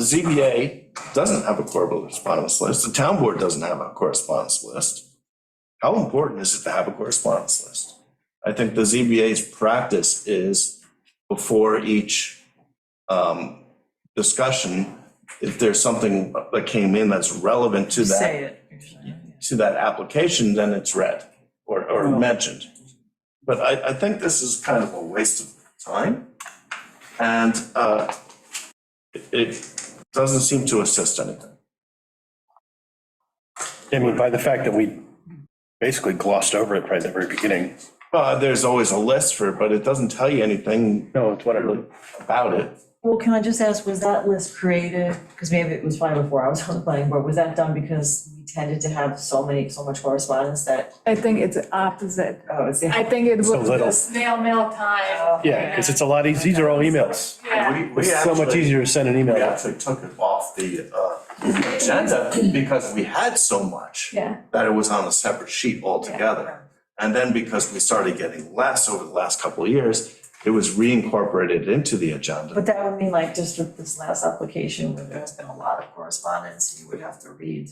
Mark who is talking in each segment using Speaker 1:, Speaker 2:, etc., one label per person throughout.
Speaker 1: The ZBA doesn't have a correspondence list, the town board doesn't have a correspondence list. How important is it to have a correspondence list? I think the ZBA's practice is before each um, discussion, if there's something that came in that's relevant to that,
Speaker 2: Say it.
Speaker 1: to that application, then it's read or, or mentioned. But I, I think this is kind of a waste of time. And uh, it- it doesn't seem to assist anything.
Speaker 3: I mean, by the fact that we basically glossed over it right at the very beginning.
Speaker 1: Uh, There's always a list for it, but it doesn't tell you anything
Speaker 3: No, it's whatever.
Speaker 1: about it.
Speaker 2: Well, can I just ask, was that list created, because maybe it was probably before I was on the planning board, was that done because we tended to have so many, so much correspondence that,
Speaker 4: I think it's opposite.
Speaker 2: oh, it's.
Speaker 4: I think it was
Speaker 3: So little.
Speaker 4: the snail mail time.
Speaker 2: Oh,
Speaker 3: Yeah, because it's a lot easier, these are all emails.
Speaker 4: Yeah,
Speaker 1: We- we
Speaker 3: It's so much
Speaker 1: actually-
Speaker 3: easier to send an
Speaker 1: We
Speaker 3: email.
Speaker 1: actually took it off the uh, agenda because we had so much
Speaker 4: yeah,
Speaker 1: that it was on a separate sheet altogether. And then because we started getting less over the last couple of years, it was reincorporated into the agenda.
Speaker 2: But that would mean like just with this last application, where there's been a lot of correspondence, you would have to read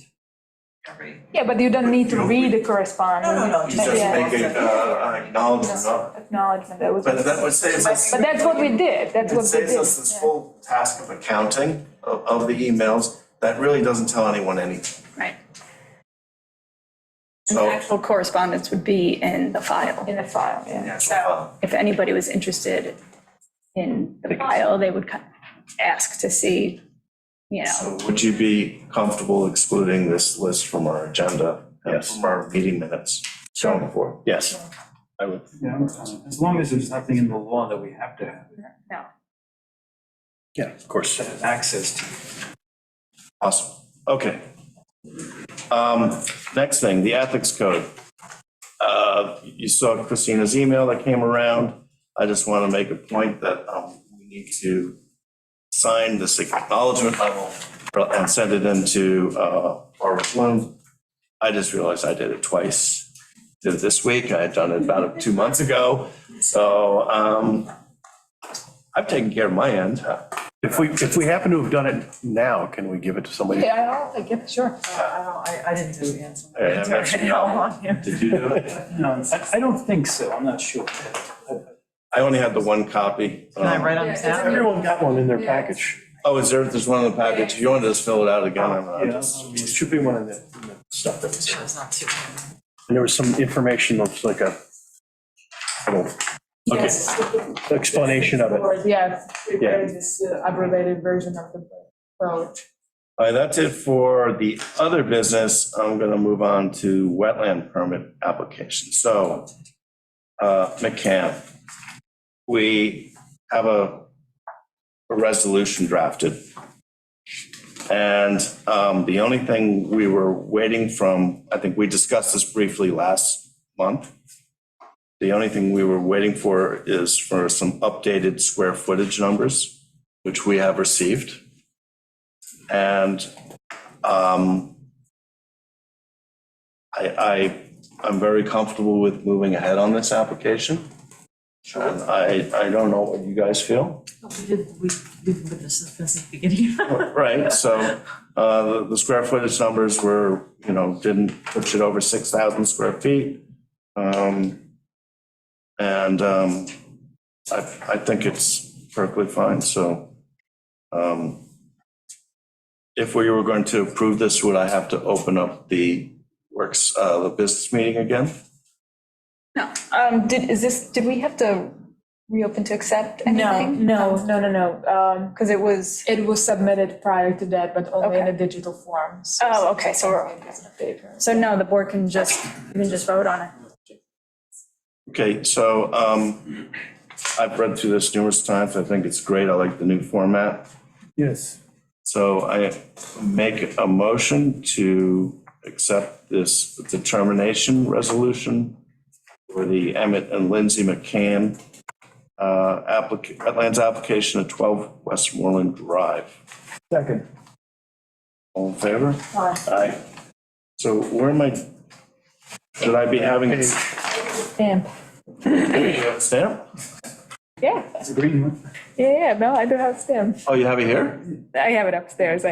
Speaker 2: every.
Speaker 4: yeah, but you don't need to read the correspondence.
Speaker 2: No, no, no,
Speaker 1: You
Speaker 2: But
Speaker 1: just
Speaker 4: Yeah.
Speaker 1: make it uh, an acknowledgement of,
Speaker 4: Acknowledgement, that was.
Speaker 1: but that would save us.
Speaker 4: But that's what we did, that's what
Speaker 1: It
Speaker 4: we did.
Speaker 1: saves us this
Speaker 4: yeah.
Speaker 1: full task of accounting of, of the emails that really doesn't tell anyone anything.
Speaker 5: Right. And
Speaker 1: So-
Speaker 5: the actual correspondence would be in the file.
Speaker 4: In the file, yeah.
Speaker 5: So if anybody was interested in the file, they would co- ask to see, you know,
Speaker 1: So would you be comfortable excluding this list from our agenda? and
Speaker 3: Yes.
Speaker 1: From our meeting minutes going forward?
Speaker 3: Yes. I would,
Speaker 6: Yeah, I'm fine. as long as there's nothing in the law that we have to have
Speaker 5: no.
Speaker 3: yeah, of course.
Speaker 6: access to.
Speaker 1: Awesome, okay. Um, next thing, the ethics code. Uh, you saw Christina's email that came around. I just want to make a point that, um, we need to sign this acknowledgement level and send it into, uh, Barbara Bloom. I just realized I did it twice. Did it this week, I had done it about two months ago, so, um, I've taken care of my end.
Speaker 3: If we, if we happen to have done it now, can we give it to somebody?
Speaker 4: Yeah, I'll give, sure.
Speaker 2: Uh, I don't, I, I didn't do it yet. so-
Speaker 1: Hey, I'm actually-
Speaker 2: on here.
Speaker 1: Did you do it?
Speaker 6: No, I, I don't think so, I'm not sure.
Speaker 1: I only had the one copy.
Speaker 2: Can I
Speaker 1: Um,
Speaker 2: write on this down?
Speaker 3: Everyone got one in their package.
Speaker 1: Oh, is there, there's one in the package, you want to just fill it out again? I'm uh, not-
Speaker 3: Yeah, there should be one in the, in the stuff that was there.
Speaker 2: It's not too.
Speaker 3: And there was some information of like a little
Speaker 4: Yes,
Speaker 3: explanation of it.
Speaker 4: yeah,
Speaker 3: Yeah.
Speaker 4: this uh, abbreviated version of the code.
Speaker 1: All right, that's it for the other business, I'm going to move on to wetland permit application. So, uh, McCann, we have a, a resolution drafted. And um, the only thing we were waiting from, I think we discussed this briefly last month. The only thing we were waiting for is for some updated square footage numbers, which we have received. And um, I, I, I'm very comfortable with moving ahead on this application. And I, I don't know what you guys feel.
Speaker 2: We did, we, we've been this since the beginning.
Speaker 1: Right, so uh, the- the square footage numbers were, you know, didn't push it over 6,000 square feet. Um, And um, I, I think it's perfectly fine, so. um, If we were going to approve this, would I have to open up the works, uh, the business meeting again?
Speaker 5: No. Um, did, is this, did we have to reopen to accept
Speaker 4: No,
Speaker 5: anything?
Speaker 4: no, no, no, no, um,
Speaker 5: Because it was,
Speaker 4: it was submitted prior to that, but only in
Speaker 5: Okay.
Speaker 4: a digital form. so
Speaker 5: oh, okay, so we're,
Speaker 4: it's in a paper.
Speaker 5: so no, the board can just, you can just vote on it.
Speaker 1: Okay, so um, I've read through this numerous times. I think it's great. I like the new format.
Speaker 3: Yes.
Speaker 1: So I make a motion to accept this determination resolution for the Emmett and Lindsay McCann uh, applica- wetlands application at 12 Westmoreland Drive.
Speaker 3: Second.
Speaker 1: All in favor? Aye. So where am I, should I be having
Speaker 5: Oh.
Speaker 3: Page.
Speaker 1: a
Speaker 4: Damn.
Speaker 1: stamp? Yeah,
Speaker 7: It's agreement.
Speaker 1: yeah, yeah, no, I do have STEM.
Speaker 4: Oh, you have it here?
Speaker 1: I have it upstairs,